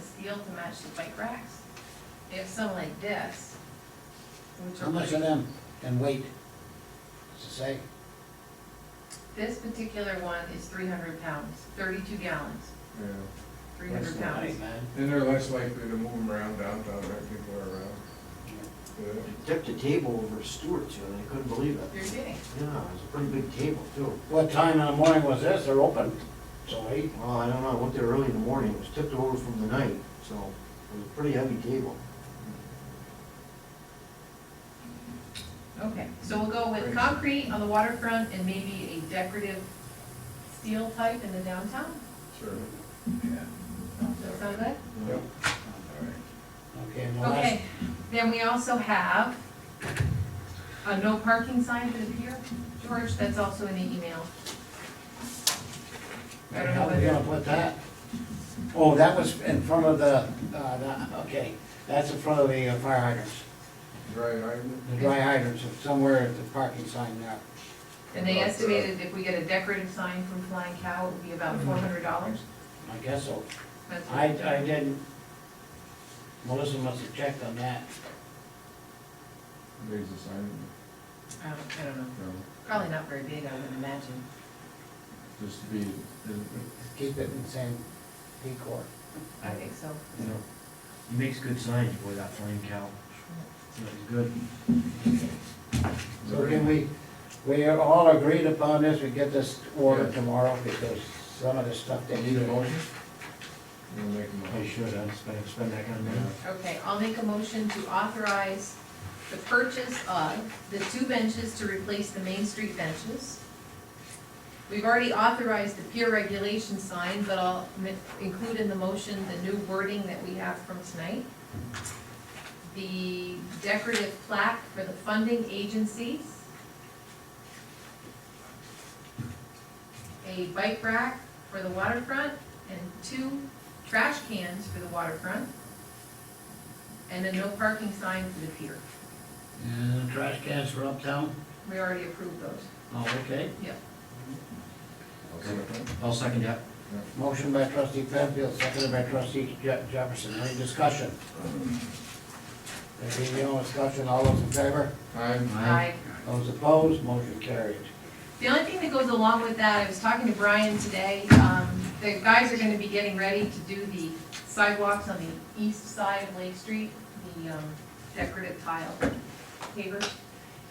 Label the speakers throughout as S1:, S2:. S1: steel to match the bike racks. They have some like this, which
S2: How
S1: are
S2: much of
S1: like,
S2: them can wait? Does it say?
S1: this particular one is three hundred pounds, thirty-two gallons,
S3: Yeah,
S1: three hundred
S2: Rest of the
S1: pounds.
S2: night, man.
S3: and they're less likely to move them around downtown than people are around. Yeah.
S4: Tipped a table over Stewart's, you know, and I couldn't believe it.
S1: You're kidding.
S4: Yeah, it was a pretty big table too.
S2: What time in the morning was this? They're open till eight?
S4: Well, I don't know, I went there early in the morning, it was tipped over from the night, so it was a pretty heavy table.
S1: Okay, so we'll go with concrete on the waterfront and maybe a decorative steel type in the downtown.
S3: Sure.
S1: Does that sound good?
S3: Yep.
S2: Okay, and the last,
S1: Okay, then we also have a no parking sign for the pier. George, that's also in the email. I don't know
S2: how we
S1: whether,
S2: gonna put that? Oh, that was in front of the, uh, the- okay, that's in front of the uh, fire hydrants,
S3: Dry hydrant.
S2: the dry hydrants, It's somewhere at the parking sign there.
S1: and they estimated if we get a decorative sign from Flying Cow, it would be about four hundred dollars.
S2: I guess so. I, I didn't, Melissa must have checked on that.
S3: Raise the sign,
S1: I don't, Um, I don't know,
S3: you know,
S1: probably not very big, I would imagine.
S3: just to be,
S2: Keep it in the same decor,
S1: I think so.
S4: You know, he makes good signs, boy, that flame cow. Looks good.
S2: So can we, we are all agreed upon this, we get this ordered tomorrow, because some of the stuff they
S3: You need
S2: need
S3: a motion? We'll make a
S4: I
S3: motion.
S4: should, I'd spend, spend that kind of money.
S3: Yeah.
S1: Okay, I'll make a motion to authorize the purchase of the two benches to replace the Main Street benches. We've already authorized the peer regulation sign, but I'll mi- include in the motion the new wording that we have from tonight. The decorative plaque for the funding agencies. A bike rack for the waterfront and two trash cans for the waterfront and a no parking sign for the pier.
S2: And the trash cans for uptown?
S1: We already approved those.
S2: Oh, okay.
S3: I'll second it.
S4: I'll second that.
S2: Motion by trustee Penfield, seconded by trustee Je- Jefferson, any discussion? There being no discussion, all those in favor?
S3: I'm,
S1: Aye.
S2: Those opposed, motion carried.
S1: The only thing that goes along with that, I was talking to Brian today, um, the guys are gonna be getting ready to do the sidewalks on the east side of Lake Street, the, um, decorative tile pavers.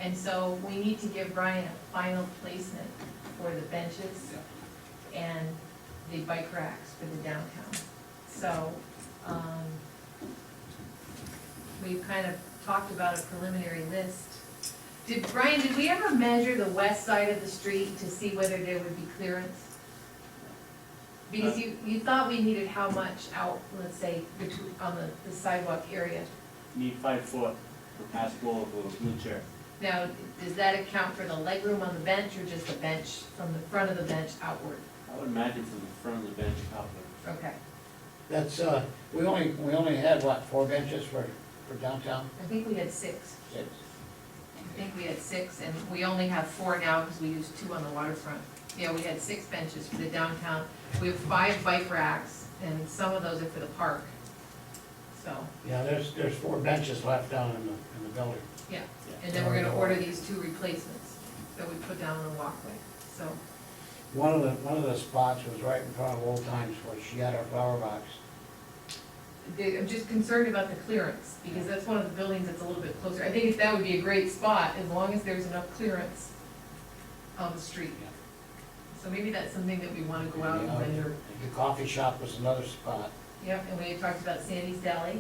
S1: And so we need to give Brian a final placement for the benches and the bike racks for the downtown. So, um, we've kind of talked about a preliminary list. Did, Brian, did we ever measure the west side of the street to see whether there would be clearance? Because you, you thought we needed how much out, let's say, between, on the the sidewalk area.
S5: need five foot for passable of a wheelchair.
S1: Now, does that account for the legroom on the bench or just the bench from the front of the bench outward?
S5: I would imagine from the front of the bench outward.
S1: Okay,
S2: That's, uh, we only, we only had, what, four benches for, for downtown?
S1: I think we had six.
S2: Six.
S1: I think we had six, and we only have four now because we used two on the waterfront. Yeah, we had six benches for the downtown. We have five bike racks, and some of those are for the park. So,
S2: Yeah, there's, there's four benches left down in the, in the building.
S1: yeah, and then we're gonna order these two replacements that we put down on the walkway, so.
S2: One of the, one of the spots was right in front of Old Times where she had her flower box.
S1: they- I'm just concerned about the clearance, because that's one of the buildings that's a little bit closer. I think that would be a great spot, as long as there's enough clearance on the street. So maybe that's something that we wanna go out and measure.
S2: The coffee shop was another spot.
S1: Yep, and we had talked about Sandy's Deli,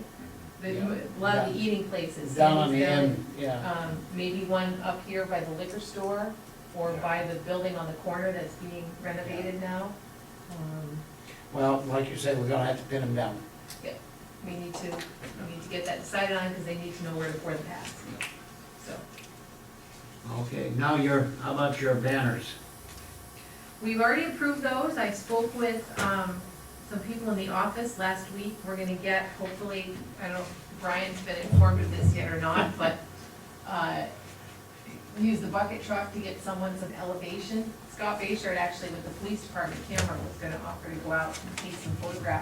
S1: the,
S2: Mm-hmm. Yeah.
S1: a lot of the eating places.
S2: Down on the
S1: Sandy's Deli,
S2: end, yeah.
S1: Um, maybe one up here by the liquor store, or by the building on the corner that's being renovated now. Um,
S2: Well, like you said, we're gonna have to pin them down.
S1: We need to, we need to get that decided on, because they need to know where to pour the pass. So,
S2: Okay, now your, how about your banners?
S1: we've already approved those, I spoke with, um, some people in the office last week, we're gonna get, hopefully, I don't know if Brian's been informed of this yet or not, but, uh, use the bucket truck to get someone some elevation. Scott Bayshard, actually, with the police department camera, was gonna offer to go out and take some photographs